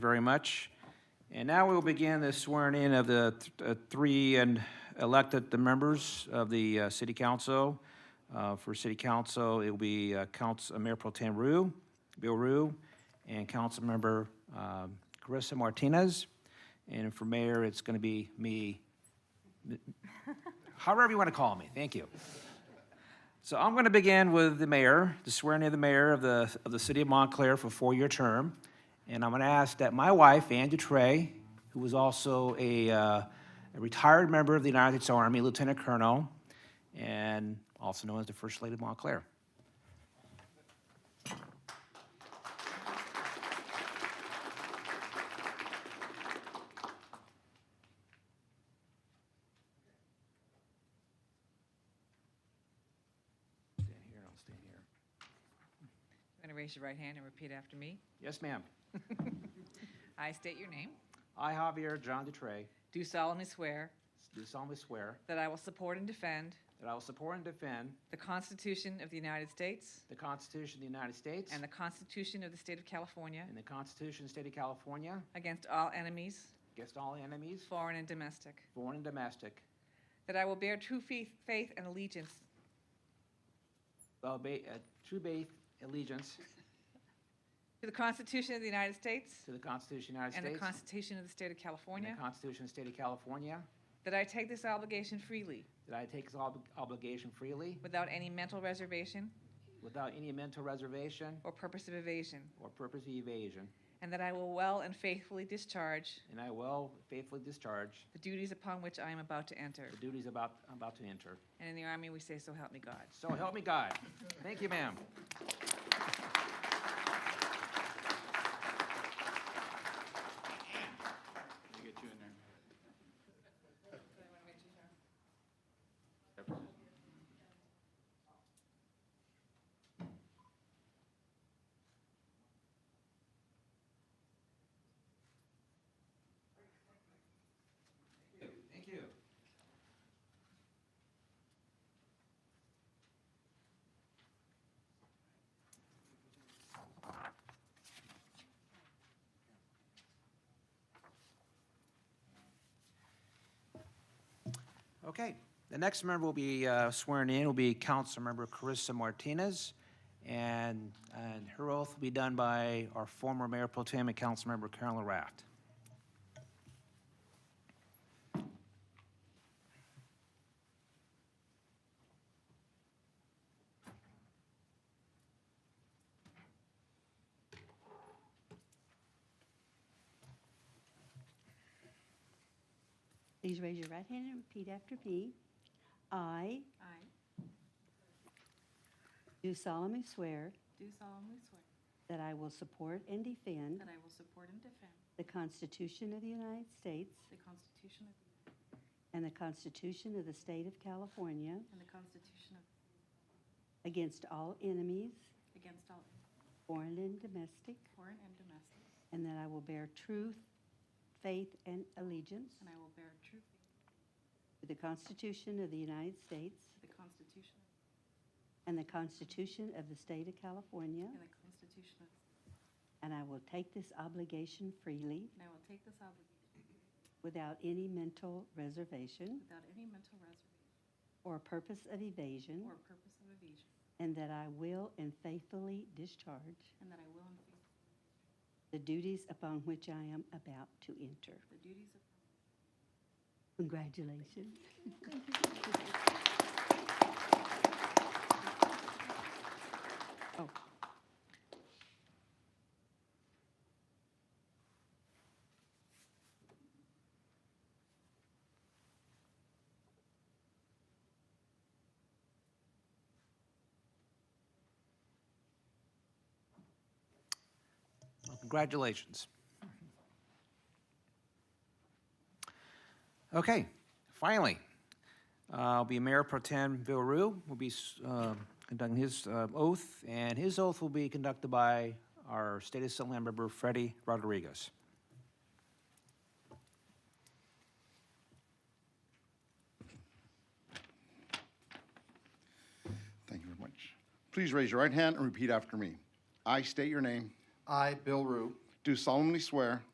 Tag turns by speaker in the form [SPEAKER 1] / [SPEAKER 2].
[SPEAKER 1] very much. And now we'll begin the swearing-in of the th- uh, three and elected the members of the uh, city council. Uh, For city council, it'll be uh, Council, Mayor Pro Tem Rue, Bill Rue, and Councilmember um, Carissa Martinez. And for mayor, it's going to be me, however you want to call me, thank you. So I'm going to begin with the mayor, the swearing in the mayor of the, of the city of Montclair for a four-year term. And I'm going to ask that my wife, Ann Dutray, who is also a, uh, a retired member of the United States Army, Lieutenant Colonel, and also known as the First Lady of Montclair. Stand here, I'll stand here.
[SPEAKER 2] I'm going to raise your right hand and repeat after me.
[SPEAKER 1] Yes, ma'am.
[SPEAKER 2] I state your name.
[SPEAKER 1] I, Javier John Dutray,
[SPEAKER 2] Do solemnly swear
[SPEAKER 1] do solemnly swear
[SPEAKER 2] that I will support and defend
[SPEAKER 1] that I will support and defend
[SPEAKER 2] the Constitution of the United States
[SPEAKER 1] the Constitution of the United States
[SPEAKER 2] and the Constitution of the State of California
[SPEAKER 1] and the Constitution of the State of California
[SPEAKER 2] against all enemies,
[SPEAKER 1] against all enemies,
[SPEAKER 2] foreign and domestic.
[SPEAKER 1] foreign and domestic,
[SPEAKER 2] That I will bear true fe- faith and allegiance
[SPEAKER 1] Well, ba- uh, true faith, allegiance
[SPEAKER 2] to the Constitution of the United States
[SPEAKER 1] to the Constitution of the
[SPEAKER 2] and the
[SPEAKER 1] United States.
[SPEAKER 2] Constitution of the State of
[SPEAKER 1] and
[SPEAKER 2] California.
[SPEAKER 1] the Constitution of the State of California.
[SPEAKER 2] That I take this obligation freely
[SPEAKER 1] That I take this ob- obligation freely,
[SPEAKER 2] without any mental reservation
[SPEAKER 1] without any mental reservation
[SPEAKER 2] or purpose of evasion.
[SPEAKER 1] or purpose of evasion.
[SPEAKER 2] And that I will well and faithfully discharge
[SPEAKER 1] And I will faithfully discharge
[SPEAKER 2] the duties upon which I am about to enter.
[SPEAKER 1] the duties about, I'm about to enter.
[SPEAKER 2] And in the Army, we say, so help me God.
[SPEAKER 1] So help me God. Thank you, ma'am. Thank you. Okay, the next member will be uh, sworn in will be Councilmember Carissa Martinez. And, and her oath will be done by our former Mayor Pro Tem and Councilmember Carolyn Raft.
[SPEAKER 3] Please raise your right hand and repeat after me. I
[SPEAKER 4] I
[SPEAKER 3] do solemnly swear
[SPEAKER 4] do solemnly swear
[SPEAKER 3] that I will support and defend
[SPEAKER 4] that I will support and defend
[SPEAKER 3] the Constitution of the United States
[SPEAKER 4] the Constitution of,
[SPEAKER 3] and the Constitution of the State of California
[SPEAKER 4] and the Constitution of,
[SPEAKER 3] against all enemies,
[SPEAKER 4] against all
[SPEAKER 3] foreign and domestic,
[SPEAKER 4] foreign and domestic,
[SPEAKER 3] and that I will bear truth, faith, and allegiance
[SPEAKER 4] and I will bear true faith
[SPEAKER 3] to the Constitution of the United States
[SPEAKER 4] to the Constitution
[SPEAKER 3] and the Constitution of the State of California,
[SPEAKER 4] and the Constitution of,
[SPEAKER 3] and I will take this obligation freely
[SPEAKER 4] and I will take this obligation
[SPEAKER 3] without any mental reservation
[SPEAKER 4] without any mental reservation
[SPEAKER 3] or purpose of evasion,
[SPEAKER 4] or purpose of evasion,
[SPEAKER 3] and that I will and faithfully discharge
[SPEAKER 4] and that I will in faith
[SPEAKER 3] the duties upon which I am about to enter.
[SPEAKER 4] the duties of
[SPEAKER 3] Congratulations. Oh,
[SPEAKER 1] Well, Congratulations. Okay, finally, uh, will be Mayor Pro Tem Bill Rue will be s- uh, conducting his uh, oath, and his oath will be conducted by our State Assembly member Freddie Rodriguez.
[SPEAKER 5] Thank you very much. Please raise your right hand and repeat after me. I state your name,
[SPEAKER 6] I, Bill Rue,
[SPEAKER 5] do solemnly swear